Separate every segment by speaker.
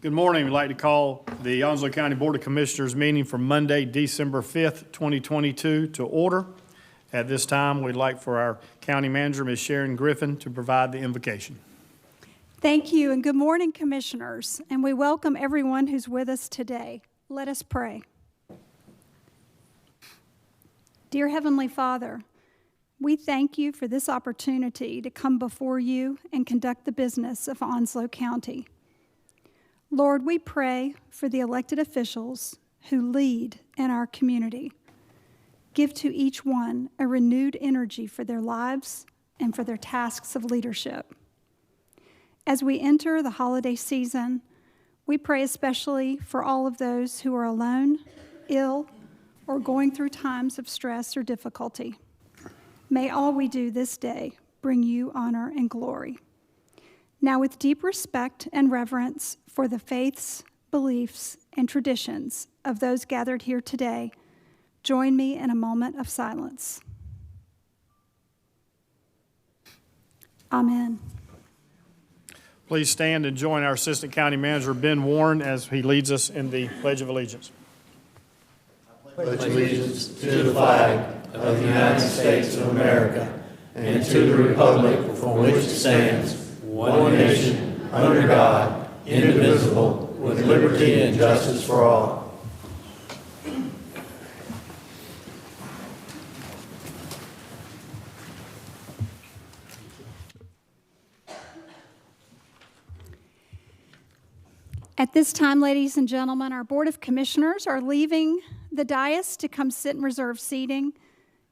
Speaker 1: Good morning. We'd like to call the Onslow County Board of Commissioners meeting for Monday, December 5th, 2022 to order. At this time, we'd like for our county manager, Ms. Sharon Griffin, to provide the invocation.
Speaker 2: Thank you, and good morning, Commissioners, and we welcome everyone who's with us today. Let us pray. Dear Heavenly Father, we thank you for this opportunity to come before you and conduct the business of Onslow County. Lord, we pray for the elected officials who lead in our community. Give to each one a renewed energy for their lives and for their tasks of leadership. As we enter the holiday season, we pray especially for all of those who are alone, ill, or going through times of stress or difficulty. May all we do this day bring you honor and glory. Now, with deep respect and reverence for the faiths, beliefs, and traditions of those gathered here today, join me in a moment of silence. Amen.
Speaker 1: Please stand and join our Assistant County Manager, Ben Warren, as he leads us in the Pledge of Allegiance.
Speaker 3: pledge allegiance to the flag of the United States of America and to the republic for which it stands, one nation, under God, indivisible, with liberty and justice for all.
Speaker 2: At this time, ladies and gentlemen, our Board of Commissioners are leaving the dais to come sit in reserved seating,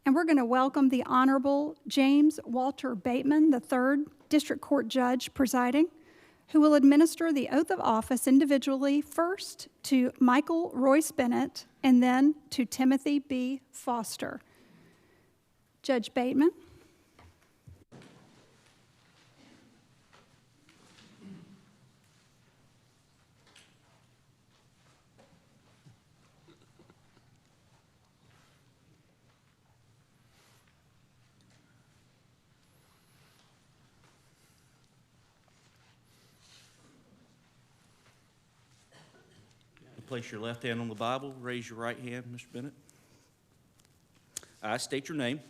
Speaker 2: and we're going to welcome the Honorable James Walter Bateman III, District Court Judge presiding, who will administer the oath of office individually first to Michael Royce Bennett and then to Timothy B. Foster. Judge Bateman?
Speaker 4: Place your left hand on the Bible, raise your right hand, Mr. Bennett. I state your name,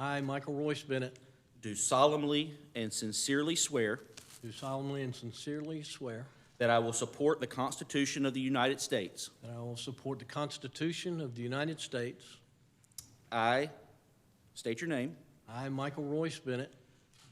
Speaker 5: I, Michael Royce Bennett,
Speaker 4: do solemnly and sincerely swear
Speaker 5: do solemnly and sincerely swear
Speaker 4: that I will support the Constitution of the United States.
Speaker 5: that I will support the Constitution of the United States.
Speaker 4: I state your name,
Speaker 5: I, Michael Royce Bennett,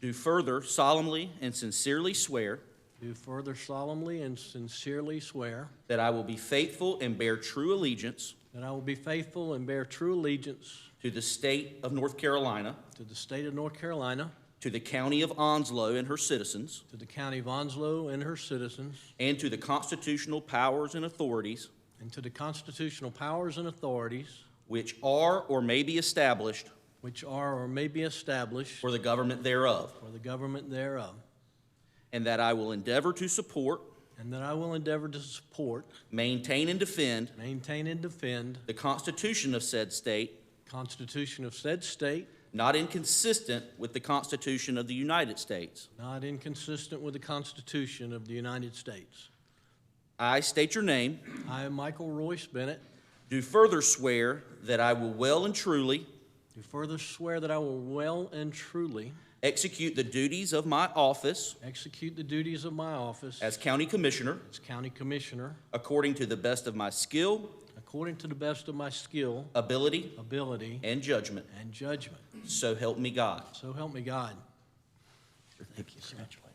Speaker 4: do further solemnly and sincerely swear
Speaker 5: do further solemnly and sincerely swear
Speaker 4: that I will be faithful and bear true allegiance
Speaker 5: that I will be faithful and bear true allegiance
Speaker 4: to the state of North Carolina,
Speaker 5: to the state of North Carolina,
Speaker 4: to the county of Onslow and her citizens,
Speaker 5: to the county of Onslow and her citizens,
Speaker 4: and to the constitutional powers and authorities
Speaker 5: and to the constitutional powers and authorities
Speaker 4: which are or may be established
Speaker 5: which are or may be established
Speaker 4: for the government thereof.
Speaker 5: for the government thereof,
Speaker 4: And that I will endeavor to support,
Speaker 5: and that I will endeavor to support,
Speaker 4: maintain, and defend
Speaker 5: maintain, and defend
Speaker 4: the Constitution of said state,
Speaker 5: the Constitution of said state,
Speaker 4: not inconsistent with the Constitution of the United States.
Speaker 5: Not inconsistent with the Constitution of the United States.
Speaker 4: I state your name,
Speaker 5: I, Michael Royce Bennett,
Speaker 4: do further swear that I will well and truly
Speaker 5: do further swear that I will well and truly
Speaker 4: execute the duties of my office
Speaker 5: execute the duties of my office
Speaker 4: as County Commissioner
Speaker 5: as County Commissioner
Speaker 4: according to the best of my skill,
Speaker 5: according to the best of my skill,
Speaker 4: ability,
Speaker 5: ability,
Speaker 4: and judgment.
Speaker 5: and judgment.
Speaker 4: So help me God.
Speaker 5: So help me God.
Speaker 4: Thank you so much.